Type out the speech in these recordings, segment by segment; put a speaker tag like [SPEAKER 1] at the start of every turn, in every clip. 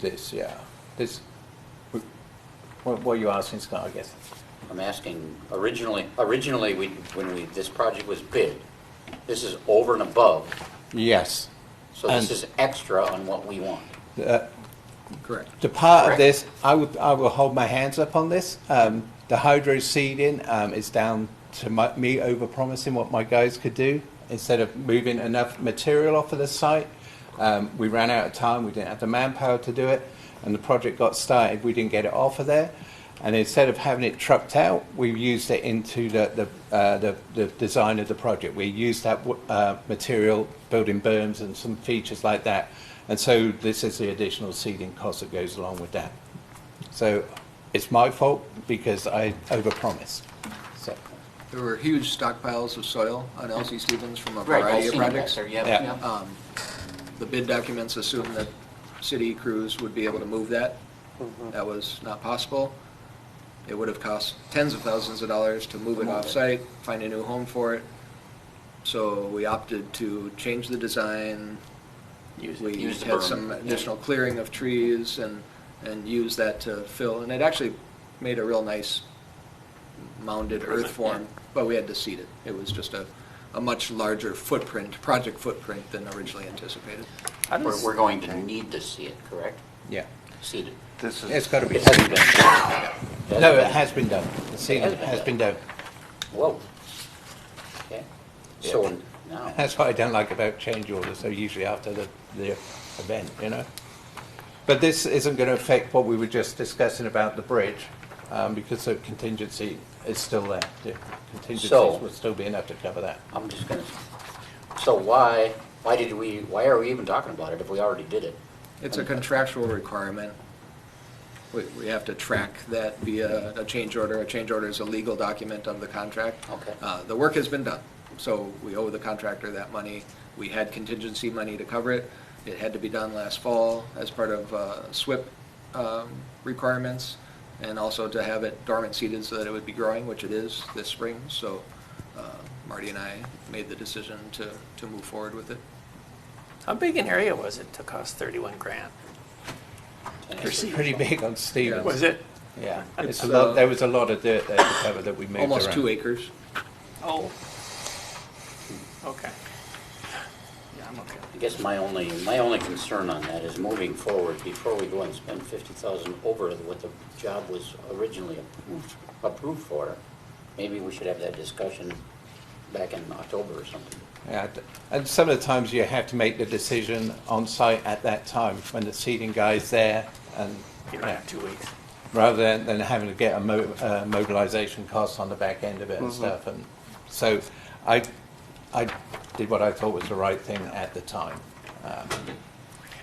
[SPEAKER 1] this, yeah, this, what, what you asking, Scott, I guess?
[SPEAKER 2] I'm asking, originally, originally, we, when we, this project was bid, this is over and above,
[SPEAKER 1] Yes.
[SPEAKER 2] so this
[SPEAKER 1] And-
[SPEAKER 2] is extra on what we want.
[SPEAKER 1] The
[SPEAKER 3] Correct.
[SPEAKER 1] the part of
[SPEAKER 2] Correct.
[SPEAKER 1] this, I would, I will hold my hands up on this. Um, the hydro seeding, um, is down to my, me over promising what my guys could do. Instead of moving enough material off of the site, um, we ran out of time, we didn't have the manpower to do it, and the project got started, we didn't get it off of there. And instead of having it trucked out, we used it into the, the, uh, the, the design of the project. We used that w- uh, material, building berms and some features like that. And so this is the additional seeding cost that goes along with that. So it's my fault because I overpromised. So,
[SPEAKER 3] There were huge stockpiles of soil on LC Stevens from a
[SPEAKER 2] I've
[SPEAKER 3] variety of
[SPEAKER 2] seen that
[SPEAKER 3] projects.
[SPEAKER 2] there, yep,
[SPEAKER 1] Yeah.
[SPEAKER 2] yep.
[SPEAKER 3] Um, The bid documents assumed that city crews would be able to move that. That was not possible. It would have cost tens of thousands of dollars to move it off-site, find a new home for it. So we opted to change the design.
[SPEAKER 2] Use-
[SPEAKER 3] We
[SPEAKER 2] use the berm.
[SPEAKER 3] had some additional clearing of trees and, and used that to fill, and it actually made a real nice mounded earth form, but we had to seed it. It was just a, a much larger footprint, project footprint than originally anticipated.
[SPEAKER 4] How
[SPEAKER 2] We're,
[SPEAKER 4] does,
[SPEAKER 2] we're going to need to see it, correct?
[SPEAKER 1] yeah,
[SPEAKER 2] See it.
[SPEAKER 4] this
[SPEAKER 1] it's
[SPEAKER 4] is,
[SPEAKER 1] got to be.
[SPEAKER 2] It hasn't been. hasn't
[SPEAKER 1] No, it
[SPEAKER 2] been-
[SPEAKER 1] has been done. The seeding has been done.
[SPEAKER 2] Whoa. Okay. So now,
[SPEAKER 1] That's what I don't like about change orders, so usually after the, the event, you know? But this isn't going to affect what we were just discussing about the bridge, um, because the contingency is still there. The contingencies
[SPEAKER 2] So-
[SPEAKER 1] will still be enough to cover that.
[SPEAKER 2] I'm just gonna, so why, why did we, why are we even talking about it if we already did it?
[SPEAKER 3] It's a contractual requirement. We, we have to track that via a change order. A change order is a legal document of the contract.
[SPEAKER 2] Okay.
[SPEAKER 3] Uh, the work has been done, so we owe the contractor that money. We had contingency money to cover it. It had to be done last fall as part of, uh, SWIP, um, requirements, and also to have it dormant seeded so that it would be growing, which it is this spring, so, uh, Marty and I made the decision to, to move forward with it.
[SPEAKER 4] how big an area was it to cost thirty-one grand?
[SPEAKER 1] It's pretty big on
[SPEAKER 4] Was
[SPEAKER 1] Stevens.
[SPEAKER 4] it,
[SPEAKER 1] Yeah, it's a
[SPEAKER 3] It's, uh,
[SPEAKER 1] lot, there was a lot of dirt there to cover that we moved around.
[SPEAKER 3] Almost two acres.
[SPEAKER 4] oh, okay. Yeah, I'm okay.
[SPEAKER 2] I guess my only, my only concern on that is moving forward, before we go and spend fifty thousand over what the job was originally approved, approved for, maybe we should have that discussion back in October or something.
[SPEAKER 1] Yeah, d- and some of the times you have to make the decision on site at that time, when the seeding guy's there and.
[SPEAKER 4] You don't
[SPEAKER 1] yeah.
[SPEAKER 4] have two weeks.
[SPEAKER 1] rather than, than having to get a mo- uh, mobilization cost on the back end of it and
[SPEAKER 2] Mm-hmm.
[SPEAKER 1] stuff. And so I, I did what I thought was the right thing at the time. Um,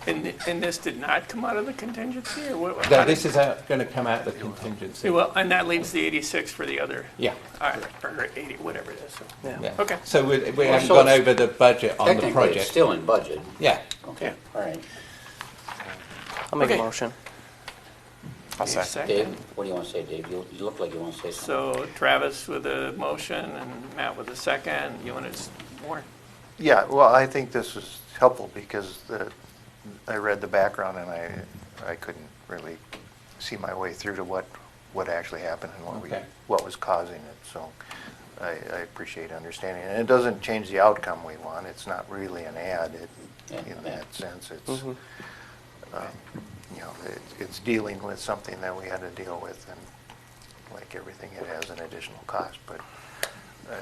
[SPEAKER 4] And, thi- and this did not come out of the contingency or what? how
[SPEAKER 1] now,
[SPEAKER 4] did-
[SPEAKER 1] this is going to come out of the contingency.
[SPEAKER 4] Well, and that leaves the eighty-six for the other.
[SPEAKER 1] Yeah.
[SPEAKER 4] All right, or eighty, whatever it is, so.
[SPEAKER 1] Yeah.
[SPEAKER 4] Okay.
[SPEAKER 1] So we, we
[SPEAKER 2] Well,
[SPEAKER 1] haven't
[SPEAKER 2] so
[SPEAKER 1] gone
[SPEAKER 2] it's-
[SPEAKER 1] over the budget on the
[SPEAKER 2] Technically, it's
[SPEAKER 1] project.
[SPEAKER 2] still in budget.
[SPEAKER 1] Yeah.
[SPEAKER 2] Okay, all right.
[SPEAKER 5] I'll make a
[SPEAKER 4] Okay.
[SPEAKER 5] motion. I'll
[SPEAKER 4] Give me a
[SPEAKER 5] second.
[SPEAKER 2] Dave, what do you want to say, Dave? You you look like you want to say something.
[SPEAKER 4] So Travis with a motion and Matt with a second, you want to, more?
[SPEAKER 5] Yeah,
[SPEAKER 6] Well, I think this is helpful because the, I read the background and I, I couldn't really see my way through to what, what actually happened and what we,
[SPEAKER 1] Okay.
[SPEAKER 6] what was causing it, so I, I appreciate understanding. And it doesn't change the outcome we want, it's not really an ad, it,
[SPEAKER 2] Yeah,
[SPEAKER 6] in
[SPEAKER 2] yeah.
[SPEAKER 6] that sense, it's, um, you know, it- it's dealing with something that we had to deal with and like everything, it has an additional cost, but uh,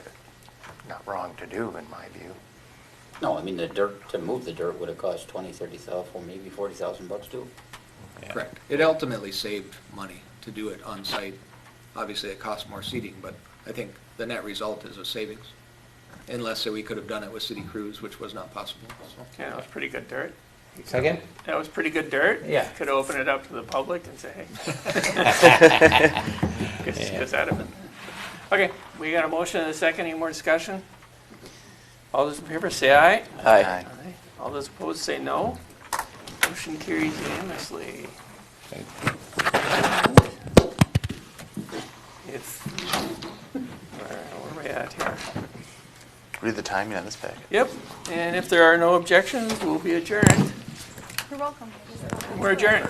[SPEAKER 6] not wrong to do in my view.
[SPEAKER 2] No, I mean, the dirt, to move the dirt would have cost twenty, thirty thousand, or maybe forty thousand bucks too.
[SPEAKER 1] Yeah.
[SPEAKER 3] Correct. It ultimately saved money to do it on-site. Obviously, it cost more seating, but I think the net result is a savings, unless we could have done it with city crews, which was not possible. so.
[SPEAKER 4] Yeah, that was pretty good dirt.
[SPEAKER 1] Second?
[SPEAKER 4] That was pretty good dirt.
[SPEAKER 1] Yeah.
[SPEAKER 4] Could open it up to the public and say, hey. Gets- gets out of it. Okay, we got a motion and a second. Any more discussion? All those in favor say aye.
[SPEAKER 5] Aye.
[SPEAKER 4] Aye. All those opposed say no. Motion carries unanimously.
[SPEAKER 1] Thank
[SPEAKER 4] If, where where are we at here?
[SPEAKER 5] Read the timing on this packet.
[SPEAKER 4] Yep, and if there are no objections, we'll be adjourned.
[SPEAKER 7] You're welcome.
[SPEAKER 4] We're adjourned.